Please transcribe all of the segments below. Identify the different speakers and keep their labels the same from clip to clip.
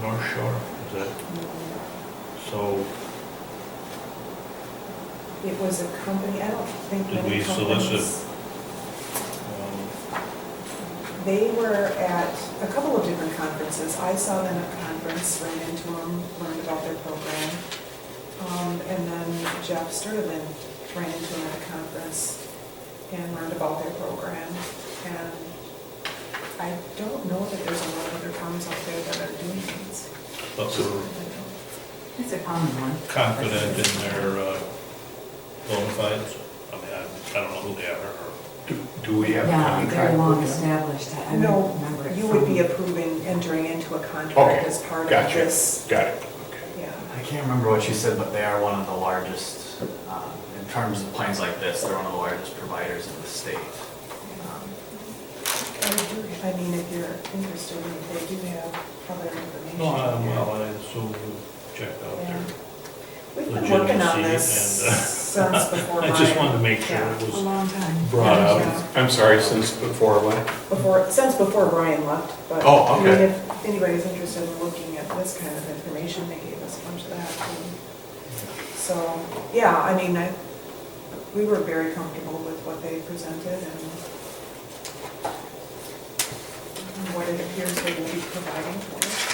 Speaker 1: North Shore, is it? So
Speaker 2: It was a company, I don't think
Speaker 1: Did
Speaker 2: many
Speaker 1: we solicit-
Speaker 2: companies-
Speaker 1: um,
Speaker 2: They were at a couple of different conferences. I saw them at conference, ran into them, learned about their program. Um, And then Jeff Sturdivant ran into them at a conference and learned about their program. And I don't know that there's a lot of other firms out there that are doing these.
Speaker 1: but we're
Speaker 3: It's a common one.
Speaker 1: confident in their uh, bona fides. I mean, I- I don't know who they are, or
Speaker 4: Do- Do we have a
Speaker 3: Yeah, they're
Speaker 4: contract
Speaker 3: long
Speaker 4: with them?
Speaker 3: established, I I don't
Speaker 2: No,
Speaker 3: remember it
Speaker 2: you would
Speaker 3: from-
Speaker 2: be approving entering into a contract
Speaker 4: Okay,
Speaker 2: as part of
Speaker 4: gotcha.
Speaker 2: this.
Speaker 4: Got it, okay.
Speaker 2: Yeah.
Speaker 5: I can't remember what you said, but they are one of the largest, um, in terms of plans like this, they're one of the largest providers in the state. Um,
Speaker 2: I mean, if you're interested, they do have other information.
Speaker 1: no, I'm- well, I assume we checked out their.
Speaker 2: We've been working on this
Speaker 1: legitimacy and, uh,
Speaker 2: since before my.
Speaker 1: I just wanted to make sure
Speaker 2: yeah,
Speaker 1: it
Speaker 3: A
Speaker 1: was
Speaker 3: long time.
Speaker 1: brought up.
Speaker 2: Yeah.
Speaker 4: I'm sorry, since before when?
Speaker 2: Before, since before Brian left, but.
Speaker 4: Oh,
Speaker 2: I mean,
Speaker 4: okay.
Speaker 2: If anybody's interested in looking at this kind of information, they gave us a bunch of that. too. So, yeah, I mean, I, we were very comfortable with what they presented and what it appears they will be providing for us.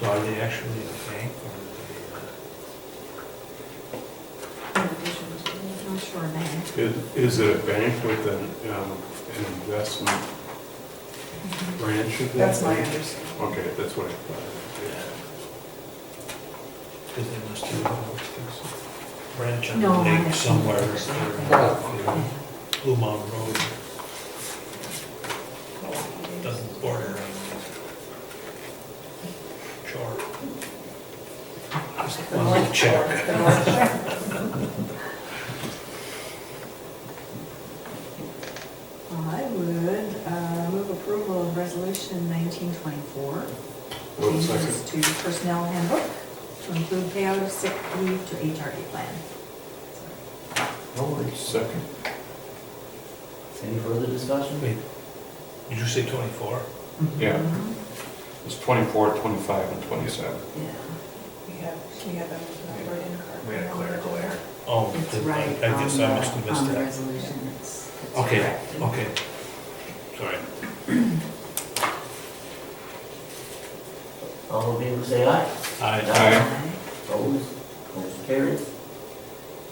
Speaker 1: So are they actually a bank or
Speaker 2: in addition to.
Speaker 3: I'm sure, man.
Speaker 4: Is is it a bank with an, um, an investment branch of that?
Speaker 2: That's my
Speaker 4: bank?
Speaker 2: understanding.
Speaker 4: Okay, that's what I thought.
Speaker 1: Because they must have a branch on
Speaker 3: No,
Speaker 1: the
Speaker 3: I-
Speaker 1: lake somewhere. or, you know, Blue Mountain Road doesn't border on shore. Just wanted to check.
Speaker 3: Well, I would uh, move approval of resolution 1924.
Speaker 4: Wait a second.
Speaker 3: Changes to personnel handbook to include payout of sick leave to HRA plan.
Speaker 4: No worries. Second.
Speaker 6: Any further discussion?
Speaker 1: Wait, did you say twenty-four?
Speaker 4: Yeah.
Speaker 3: Mhm.
Speaker 4: It's 24, 25, and 27.
Speaker 3: Yeah.
Speaker 2: We have, we have them numbered in card.
Speaker 5: We had a clerical error.
Speaker 1: Oh,
Speaker 3: It's
Speaker 1: did I
Speaker 3: right.
Speaker 1: I guess
Speaker 3: on
Speaker 1: I
Speaker 3: the-
Speaker 1: must have missed
Speaker 3: On the
Speaker 1: that.
Speaker 3: resolution, it's. it's
Speaker 1: Okay,
Speaker 3: corrected.
Speaker 1: okay. Sorry.
Speaker 6: All in favor, say aye.
Speaker 1: I,
Speaker 4: Aye.
Speaker 6: Opposed, motion carries.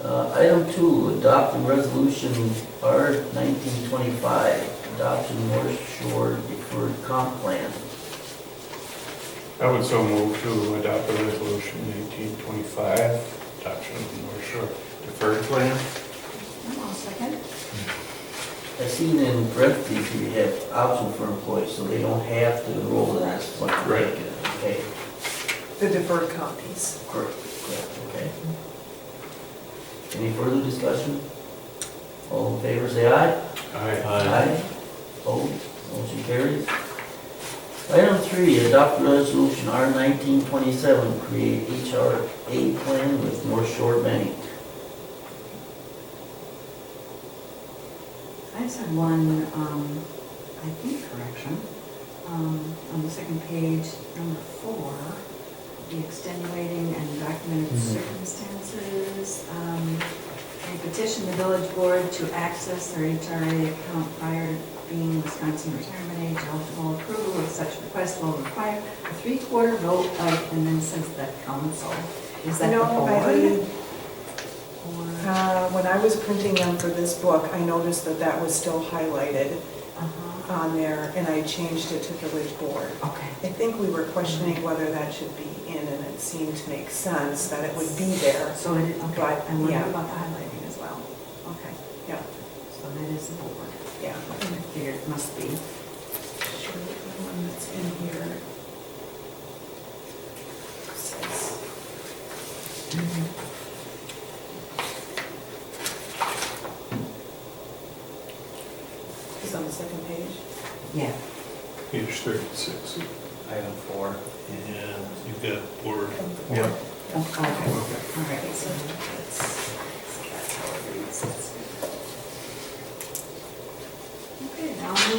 Speaker 6: Uh, Item two, adopt the resolution R nineteen twenty-five, adoption North Shore deferred comp plan.
Speaker 4: I would so move to adopt the resolution 1825, adoption of the North Shore Deferred Plan.
Speaker 3: I'll second.
Speaker 6: I seen in parentheses here you have option for employees, so they don't have to enroll in that.
Speaker 4: Right.
Speaker 6: Okay,
Speaker 2: The deferred comp piece.
Speaker 6: correct, correct, okay. Any further discussion? All in favor, say aye.
Speaker 4: Aye.
Speaker 1: I,
Speaker 6: Aye. Opposed, motion carries. Item three, adopt resolution R nineteen twenty-seven, create HR aid plan with North Shore Bank.
Speaker 3: I just had one, um, I think correction, um, on the second page, number four, the extenuating and documented circumstances, um, and petition the village board to access their HRA account prior to being Wisconsin retirement age eligible approval of such request will require a three-quarter vote of, and then says the council, is that the
Speaker 2: No, I
Speaker 3: board?
Speaker 2: mean,
Speaker 3: Or,
Speaker 2: uh, when I was printing them for this book, I noticed that that was still highlighted
Speaker 3: uh-huh,
Speaker 2: on there, and I changed it to village board.
Speaker 3: okay.
Speaker 2: I think we were questioning whether that should be in, and it seemed to make sense that it would be there.
Speaker 3: So it, okay,
Speaker 2: But,
Speaker 3: I wonder
Speaker 2: yeah.
Speaker 3: about the highlighting as well. Okay,
Speaker 2: Yeah,
Speaker 3: so that is the board.
Speaker 2: yeah.
Speaker 3: I figured it must be.
Speaker 2: Sure, the one that's in here. Says- It's on the second page.
Speaker 3: Yeah.
Speaker 4: Page 36.
Speaker 5: Item four.
Speaker 1: yeah, you've got board.
Speaker 4: Yeah.
Speaker 3: Oh, Okay, all right, so that's, that's how it reads. That's good. Okay, now